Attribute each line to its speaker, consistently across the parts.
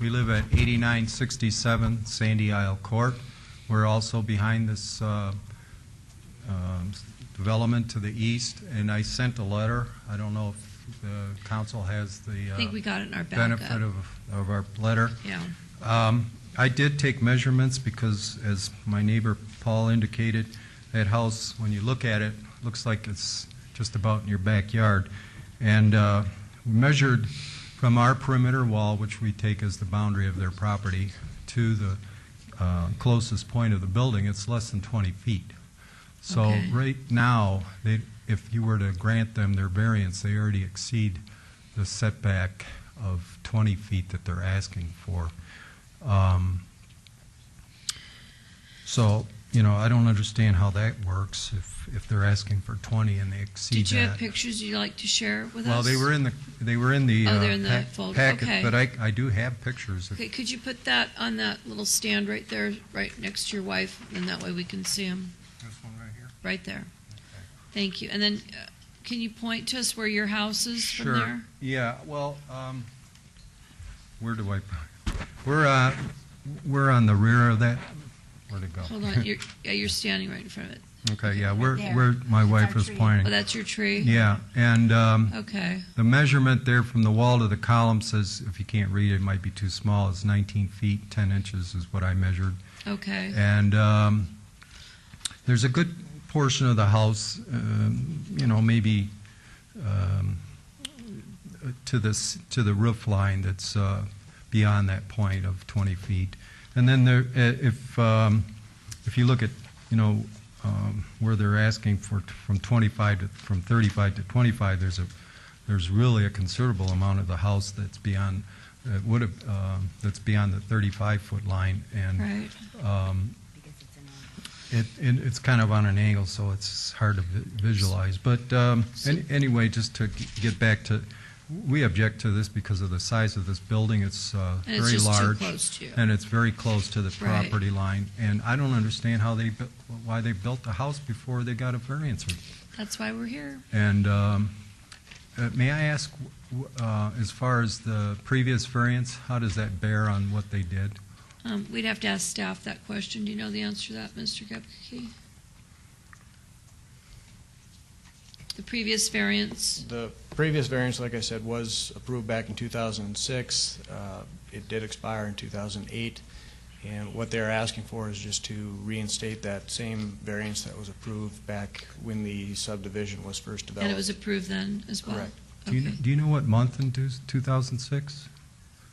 Speaker 1: We live at 8967 Sandy Isle Court. We're also behind this uh, um, s- development to the east, and I sent a letter. I don't know if the council has the
Speaker 2: I
Speaker 1: uh,
Speaker 2: think we got it in our backup.
Speaker 1: benefit of of our letter.
Speaker 2: Yeah,
Speaker 1: Um, I did take measurements because, as my neighbor Paul indicated, that house, when you look at it, looks like it's just about in your backyard. And uh, we measured from our perimeter wall, which we take as the boundary of their property, to the uh, closest point of the building, it's less than 20 feet. So
Speaker 2: Okay.
Speaker 1: right now, they, if you were to grant them their variance, they already exceed the setback of 20 feet that they're asking for. Um, So, you know, I don't understand how that works if, if they're asking for 20 and they exceed that.
Speaker 2: did you have pictures you'd like to share with us?
Speaker 1: Well, they were in the, they were in the
Speaker 2: Oh,
Speaker 1: uh,
Speaker 2: they're in the
Speaker 1: pack-
Speaker 2: folder. Okay.
Speaker 1: packet, but I, I do have pictures. if-
Speaker 2: Okay, could you put that on that little stand right there, right next to your wife, and that way we can see them,
Speaker 1: This one right here?
Speaker 2: right there? Thank you, and then, uh, can you point to us where your house is from
Speaker 1: Sure.
Speaker 2: there?
Speaker 1: Yeah, well, um, where do I, we're, uh, we're on the rear of that, where'd it go?
Speaker 2: Hold on, you're, yeah, you're standing right in front of it.
Speaker 1: Okay, yeah, where,
Speaker 3: There.
Speaker 1: where my
Speaker 3: That's our
Speaker 1: wife was
Speaker 3: tree.
Speaker 2: Oh,
Speaker 1: pointing.
Speaker 2: that's your tree?
Speaker 1: Yeah, and, um,
Speaker 2: Okay,
Speaker 1: the measurement there from the wall to the column says, if you can't read it, it might be too small, it's nineteen feet, ten inches is what I measured.
Speaker 2: okay.
Speaker 1: And um, there's a good portion of the house, um, you know, maybe um, to this, to the roof line that's uh, beyond that point of 20 feet. And then there, eh, if, um, if you look at, you know, um, where they're asking for, t- from 25 to, from 35 to 25, there's a, there's really a considerable amount of the house that's beyond, that would have, um, that's beyond the 35-foot line. And
Speaker 2: Right,
Speaker 1: um,
Speaker 3: Because it's in a,
Speaker 1: it, it, it's kind of on an angle, so it's hard to vi- visualize. But um, an- anyway, just to g- get back to, we object to this because of the size of this building. It's uh,
Speaker 2: and it's
Speaker 1: very
Speaker 2: just too
Speaker 1: large.
Speaker 2: close to you.
Speaker 1: And it's very close to the
Speaker 2: Right.
Speaker 1: property line. And I don't understand how they, bu- why they built the house before they got a variance.
Speaker 2: That's why we're here.
Speaker 1: And um, uh, may I ask, w- uh, as far as the previous variance, how does that bear on what they did?
Speaker 2: Um, we'd have to ask staff that question. Do you know the answer to that, Mr. Gepke? The previous variance,
Speaker 4: The previous variance, like I said, was approved back in 2006. Uh, It did expire in 2008, and what they're asking for is just to reinstate that same variance that was approved back when the subdivision was first developed.
Speaker 2: and it was approved then as well?
Speaker 4: Correct.
Speaker 1: Do you,
Speaker 2: Okay.
Speaker 1: do you know what month in two- 2006?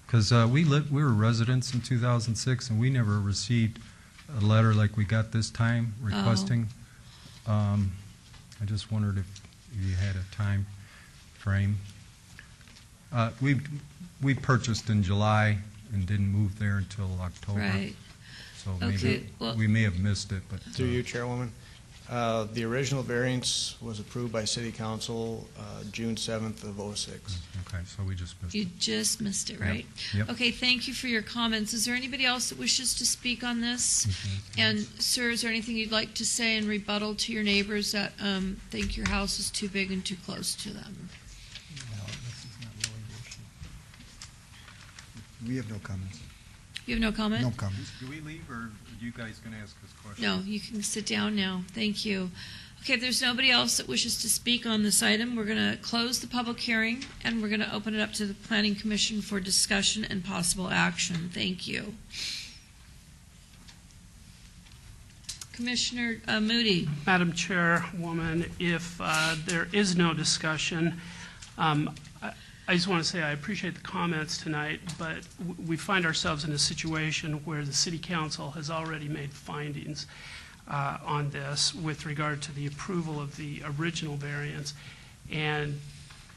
Speaker 1: Because uh, we lived, we were residents in 2006, and we never received a letter like we got this time
Speaker 2: Oh.
Speaker 1: requesting. Um, I just wondered if you had a time frame. Uh, We, we purchased in July and didn't move there until October.
Speaker 2: Right.
Speaker 1: So
Speaker 2: Okay,
Speaker 1: maybe,
Speaker 2: well-
Speaker 1: we may have missed it, but.
Speaker 4: Through
Speaker 1: uh,
Speaker 4: you, Chairwoman. Uh, The original variance was approved by City Council uh, June 7th of '06.
Speaker 1: uh, Okay, so we just missed
Speaker 2: You
Speaker 1: it.
Speaker 2: just missed it, right?
Speaker 1: Yep.
Speaker 2: Okay, thank you for your comments. Is there anybody else that wishes to speak on this?
Speaker 1: Mm-hmm.
Speaker 2: And sir, is there anything you'd like to say in rebuttal to your neighbors that um, think your house is too big and too close to them?
Speaker 5: We have no comments.
Speaker 2: You have no comment?
Speaker 5: No comments.
Speaker 1: Do we leave, or are you guys going to ask us questions?
Speaker 2: No, you can sit down now. Thank you. Okay, if there's nobody else that wishes to speak on this item, we're going to close the public hearing and we're going to open it up to the Planning Commission for discussion and possible action. Thank you. Commissioner uh, Moody,
Speaker 6: Madam Chairwoman, if uh, there is no discussion, um, I I just want to say I appreciate the comments tonight, but w- we find ourselves in a situation where the city council has already made findings uh, on this with regard to the approval of the original variance. And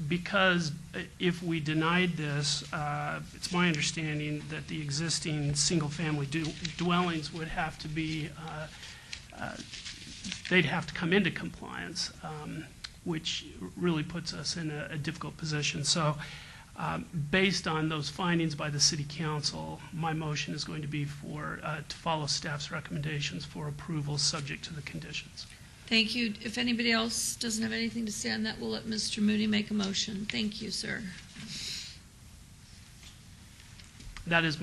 Speaker 6: because uh, if we denied this, uh, it's my understanding that the existing single-family du- dwellings would have to be uh, they'd have to come into compliance, um, which really puts us in a, a difficult position. So, um, based on those findings by the city council, my motion is going to be for, uh, to follow staff's recommendations for approval, subject to the conditions.
Speaker 2: thank you. If anybody else doesn't have anything to say on that, we'll let Mr. Moody make a motion. Thank you, sir.
Speaker 6: That is